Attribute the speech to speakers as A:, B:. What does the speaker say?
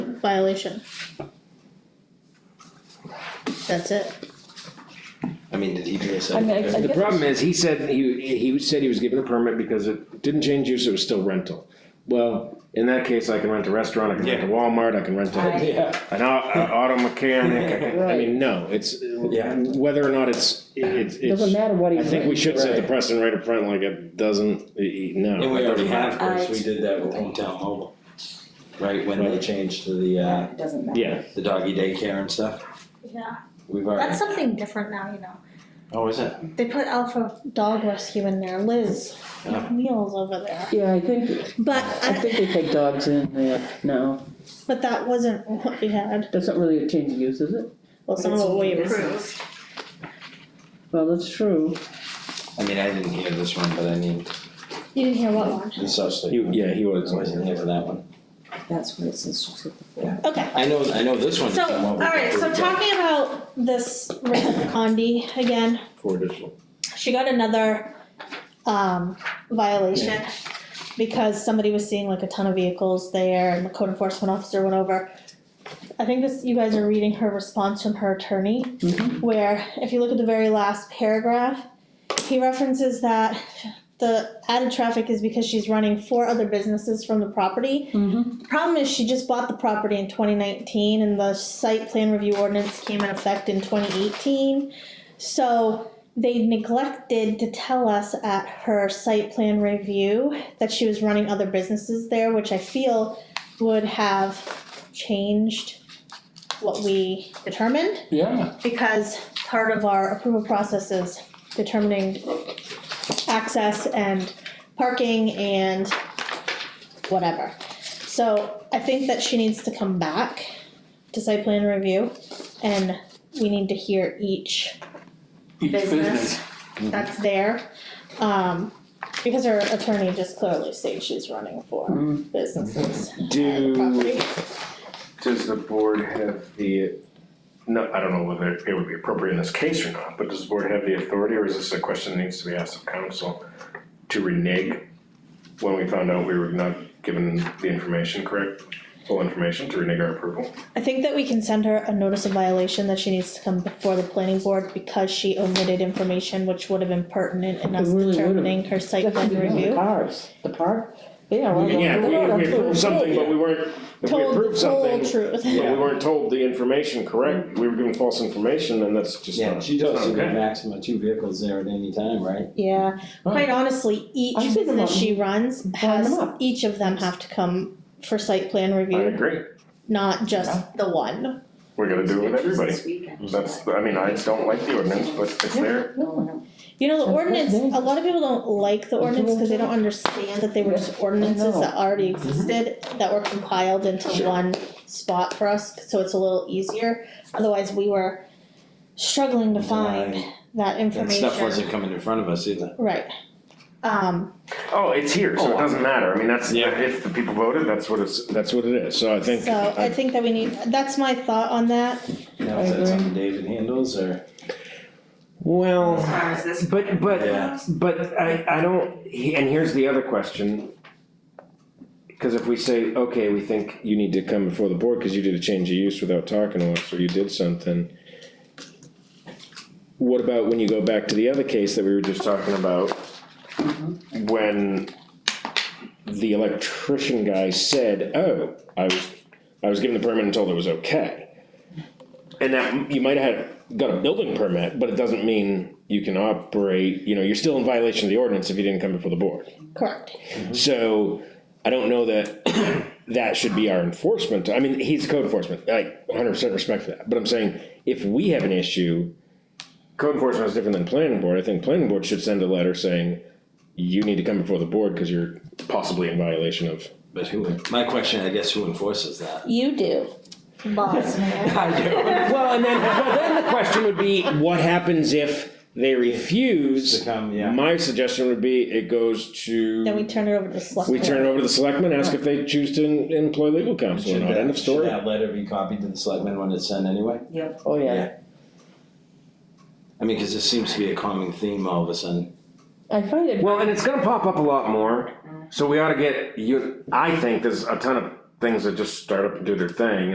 A: violation. That's it.
B: I mean, did he do a
C: I mean, I- I
B: second?
C: get-
D: The problem is, he said, he, he said he was given a permit because it didn't change use, it was still rental. Well, in that case, I can rent a restaurant, I can rent a
B: Yeah.
D: Walmart, I can rent
C: Right.
D: a,
B: Yeah,
D: an au- a auto mechanic, I mean, no, it's,
B: Yeah.
D: whether or not it's, it's,
C: Doesn't
D: it's.
C: matter what he.
D: I think we should set the
B: Right.
D: precedent right up front, like it doesn't, e- e- no.
B: and we already have, of course,
C: I-
B: we did that with hometown mobile. Right, when they
D: Right.
B: changed to the uh,
C: It Doesn't matter.
D: Yeah,
B: the doggy daycare and stuff,
A: Yeah,
B: we've
A: that's
B: already.
A: something different now, you know.
B: Oh, is it?
A: They put Alpha Dog Rescue in there, Liz,
B: Yeah.
A: meals over there.
C: Yeah, I think,
A: But,
C: I
A: I-
C: think they take dogs in there now,
A: but that wasn't what we had,
C: doesn't really change the use, is it?
A: well, some of what we approved.
C: Well, that's true,
B: I mean, I didn't hear this one, but I need
A: You didn't hear what one?
B: the substitute.
D: You- yeah, he was.
B: I wasn't here for that one.
C: that's what it says to take the
B: Yeah.
C: form.
A: Okay.
B: I know, I know this one.
A: So, alright, so talking about this Rachel Condi again,
B: For additional.
A: she got another um violation because somebody was seeing like a ton of vehicles there and the code enforcement officer went over. I think this, you guys are reading her response from her attorney,
C: Mhm.
A: where if you look at the very last paragraph, he references that the added traffic is because she's running four other businesses from the property
C: Mm-hmm.
A: the problem is she just bought the property in 2019 and the site plan review ordinance came in effect in 2018. So they neglected to tell us at her site plan review that she was running other businesses there, which I feel would have changed what we determined
C: Yeah.
A: because part of our approval process is determining access and parking and whatever. So I think that she needs to come back to site plan review and we need to hear each
E: Each
A: business
E: business, Mm-hmm.
A: that's there. Um, because her attorney just clearly states she's running for
E: Mm-hmm.
C: Mm.
A: businesses and
D: Do,
A: property.
D: does the board have the, no, I don't know whether it would be appropriate in this case or not, but does the board have the authority, or is this a question that needs to be asked of council? To renege when we found out we were not given the information, correct, full information to renege our approval?
A: I think that we can send her a notice of violation that she needs to come before the planning board because she omitted information which would have been pertinent in us
C: It really would've.
A: determining her site plan
C: The
A: review.
C: cars, the park, they are. all over
D: Yeah,
C: the
D: if we, if
C: road, that's
D: we
C: what
D: approved
C: it
D: something,
C: says.
D: but we weren't, if we
A: Told
D: approved
A: the whole
D: something,
A: truth.
D: but we weren't told the information correct, we were given false information, and that's just
B: Yeah,
D: not,
B: she does
D: it's
B: see
D: not
B: the
D: okay.
B: maximum of two vehicles there at any time, right?
A: Yeah, quite honestly, each
C: I'm thinking
A: business
C: about
A: she runs
C: them
A: has,
C: up.
A: each of them have to come for site plan
D: I
A: review,
D: agree,
A: not just the one.
D: we're gonna do it with everybody. That's, I mean, I don't like the ordinance, but it's there.
C: No,
A: You know, the
C: Of course,
A: ordinance,
C: yeah.
A: a lot of people don't like the ordinance because they don't understand that they were just ordinances that already existed that were compiled into
D: Sure.
A: one spot for us, so it's a little easier. Otherwise, we were struggling to find that
B: And
A: information.
B: stuff wasn't coming in front of us either.
A: Right. Um,
D: Oh, it's here, so it doesn't matter, I mean, that's,
B: Yeah.
D: if the people voted, that's what it's, that's what it is, so I think.
A: so I think that we need, that's my thought on that.
B: Now, is
C: I agree.
B: that something David handles or?
D: Well,
E: as far as this.
D: but, but,
B: Yeah.
D: but I, I don't, he- and here's the other question. Cause if we say, okay, we think you need to come before the board, cause you did a change of use without talking to us, or you did something. What about when you go back to the other case that we were just talking about? When the electrician guy said, "Oh, I was, I was given the permit and told it was okay." And that you might have had, got a building permit, but it doesn't mean you can operate. You know, you're still in violation of the ordinance if you didn't come before the board.
A: Correct.
D: So I don't know that that should be our enforcement. I mean, he's code enforcement. Like 100 percent respect for that. But I'm saying if we have an issue, code enforcement is different than planning board. I think planning board should send a letter saying you need to come before the board because you're possibly in violation of.
B: But who, my question, I guess, who enforces that?
A: You do, boss man.
B: I do.
D: Well, and then well, then the question would be, what happens if they refuse?
B: To come, yeah.
D: My suggestion would be it goes to
A: Then we turn it over to the select.
D: we turn it over to the selectmen, ask if they choose to en- employ legal counsel or
B: Should
D: not.
B: that,
D: End of
B: should
D: story.
B: that letter be copied to the selectmen when it's sent anyway?
E: Yep.
C: Oh, yeah,
B: I mean, cause this seems to be a common theme all of a sudden.
C: I find it,
D: Well, and it's gonna pop up a lot more, so we ought to get you. I think there's a ton of things that just start up and do their thing,